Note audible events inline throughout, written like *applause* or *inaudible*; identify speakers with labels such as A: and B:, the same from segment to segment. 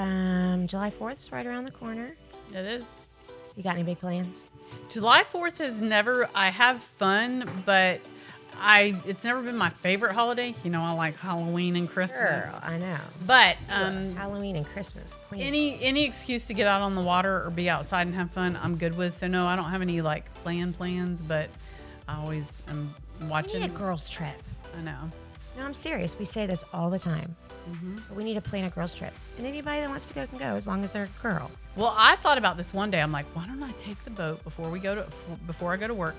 A: Um, July 4th is right around the corner.
B: It is.
A: You got any big plans?
B: July 4th has never, I have fun, but I it's never been my favorite holiday. You know, I like Halloween and Christmas.
A: Girl, I know.
B: But um,
A: Halloween and Christmas. Queen.
B: any any excuse to get out on the water or be outside and have fun, I'm good with. So no, I don't have any like plan plans, but I always am
A: we need a
B: watching.
A: girls' trip.
B: I know.
A: No, I'm serious. We say this all the time.
B: Mm-hmm.
A: But we need to plan a girls' trip. And anybody that wants to go can go as long as they're a girl.
B: Well, I thought about this one day. I'm like, why don't I take the boat before we go to before I go to work?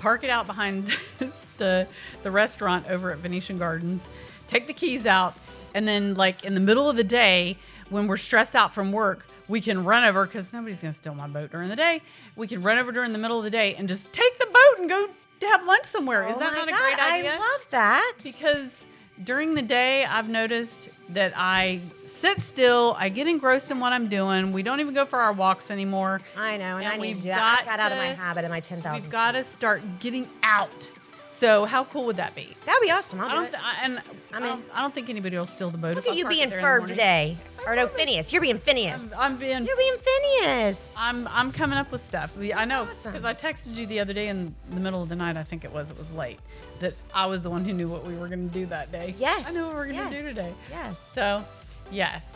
B: Park it out behind *laughs* the the restaurant over at Venetian Gardens. Take the keys out, and then like in the middle of the day when we're stressed out from work, we can run over because nobody's gonna steal my boat during the day. We can run over during the middle of the day and just take the boat and go to have lunch somewhere. Is
A: Oh
B: that
A: my
B: not
A: God,
B: a great idea?
A: I love that.
B: because during the day I've noticed that I sit still, I get engrossed in what I'm doing. We don't even go for our walks anymore.
A: I know, and,
B: And
A: I need
B: we've
A: to do that. I
B: got
A: got out of my
B: to-
A: habit of my 10,000.
B: We've got to start getting out. So how cool would that be?
A: That'd be awesome. I'll
B: I
A: do
B: don't
A: it.
B: th- I, and I,
A: I'm
B: don't, I don't think anybody will steal the boat.
A: Look
B: if
A: at
B: I
A: you
B: park it
A: being
B: there in the
A: firm
B: morning.
A: today. Or no, Phineas. You're being Phineas.
B: I'm being
A: You're being Phineas.
B: I'm I'm coming up with stuff. We, I know
A: awesome.
B: because I texted you the other day in the middle of the night. I think it was. It was late. That I was the one who knew what we were going to do that day.
A: Yes.
B: I knew what we were going to
A: yes,
B: do today.
A: Yes.
B: So, yes,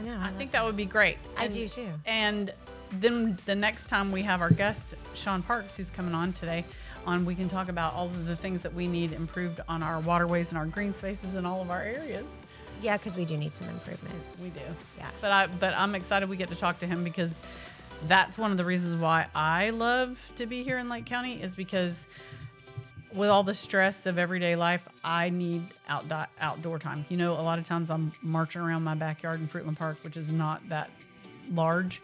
A: I know.
B: I think that would be great.
A: I do too.
B: And then the next time we have our guest Sean Parks, who's coming on today, on we can talk about all of the things that we need improved on our waterways and our green spaces and all of our areas.
A: Yeah, because we do need some improvement.
B: We do.
A: Yeah.
B: But I but I'm excited we get to talk to him because that's one of the reasons why I love to be here in Lake County is because with all the stress of everyday life, I need outdo- outdoor time. You know, a lot of times I'm marching around my backyard in Fruitland Park, which is not that large,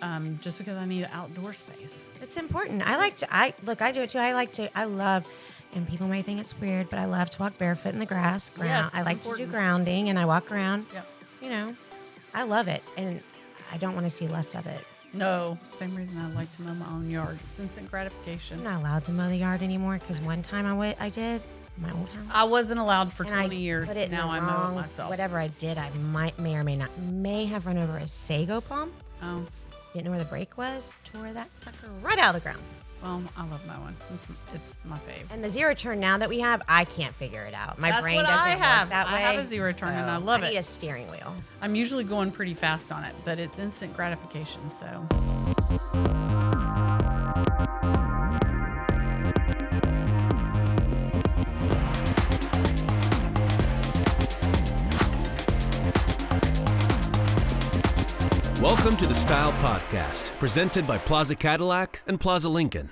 B: um, just because I need outdoor space.
A: It's important. I like to. I look. I do it too. I like to. I love. And people may think it's weird, but I love to walk barefoot in the grass. Ground.
B: Yes,
A: I
B: it's
A: like to
B: important.
A: do grounding, and I walk around.
B: Yeah.
A: You know, I love it, and I don't want to see less of it.
B: No, same reason I like to mow my own yard. It's instant gratification.
A: I'm not allowed to mow the yard anymore because one time I went, I did in my old house.
B: I wasn't allowed for
A: and
B: 20
A: I
B: years.
A: Put it in
B: now
A: the
B: I mow
A: wrong-
B: it myself.
A: Whatever I did, I might may or may not may have run over a sago palm.
B: Oh.
A: Didn't know where the brake was. Tore that sucker right out of the ground.
B: Well, Um, I love that one. It's, it's my fave.
A: And the zero turn now that we have, I can't figure it out. My
B: That's
A: brain
B: what
A: doesn't
B: I
A: work
B: have.
A: that
B: I
A: way.
B: have a zero turn and I love
A: I
B: it.
A: need a steering wheel.
B: I'm usually going pretty fast on it, but it's instant gratification. So,
C: Welcome to the Style Podcast, presented by Plaza Cadillac and Plaza Lincoln,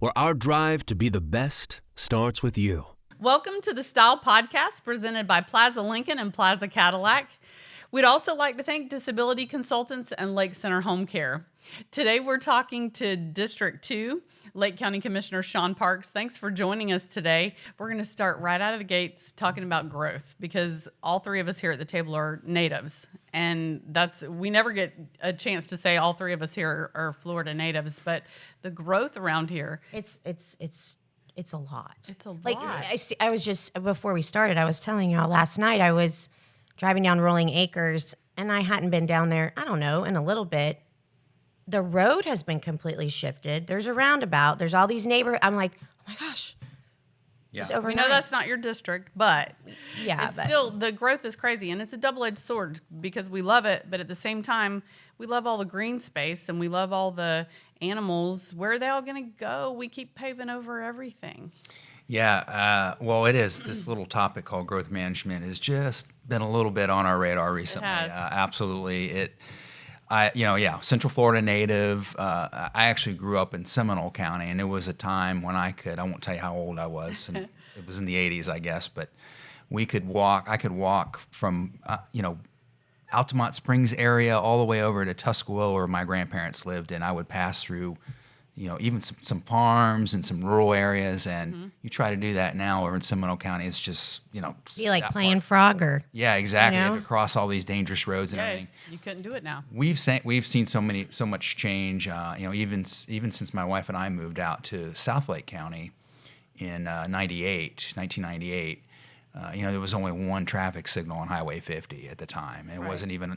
C: where our drive to be the best starts with you.
B: welcome to the Style Podcast presented by Plaza Lincoln and Plaza Cadillac. We'd also like to thank Disability Consultants and Lake Center Home Care. Today, we're talking to District 2, Lake County Commissioner Sean Parks. Thanks for joining us today. We're going to start right out of the gates talking about growth because all three of us here at the table are natives. And that's, we never get a chance to say all three of us here are Florida natives, but the growth around here
A: It's it's it's it's a lot.
B: It's a
A: Like
B: lot.
A: I, see- I was just before we started, I was telling y'all last night I was driving down Rolling Acres and I hadn't been down there, I don't know, in a little bit. The road has been completely shifted. There's a roundabout. There's all these neighbor I'm like, "Oh my gosh." Yeah. Just
B: We
A: overnight.
B: know that's not your district, but
A: Yeah,
B: it's
A: but-
B: still the growth is crazy, and it's a double-edged sword because we love it, but at the same time, we love all the green space and we love all the animals. Where are they all going to go? We keep paving over everything.
D: Yeah, uh, well, it is. This little topic called growth management has just been a little bit on our radar recently.
B: has.
D: Uh, absolutely, it. I, you know, yeah, Central Florida native. Uh, I actually grew up in Seminole County, and it was a time when I could. I won't tell you how old I was. And it was in the '80s, I guess, but we could walk. I could walk from, uh, you know, Altamont Springs area all the way over to Tuscaloosa where my grandparents lived and I would pass through you know even some, some farms and some rural areas and
A: Mm-hmm.
D: you try to do that now over in Seminole County it's just you know
A: be like
D: that
A: playing
D: part.
A: Frogger.
D: yeah exactly You had
A: know?
D: to cross all these dangerous roads and
B: Okay,
D: everything
B: you couldn't do it now.
D: we've seen we've seen so many so much change. Uh, you know, even s- even since my wife and I moved out to South Lake County in uh, 98, 1998, uh, you know, there was only one traffic signal on Highway 50 at the time, and it wasn't even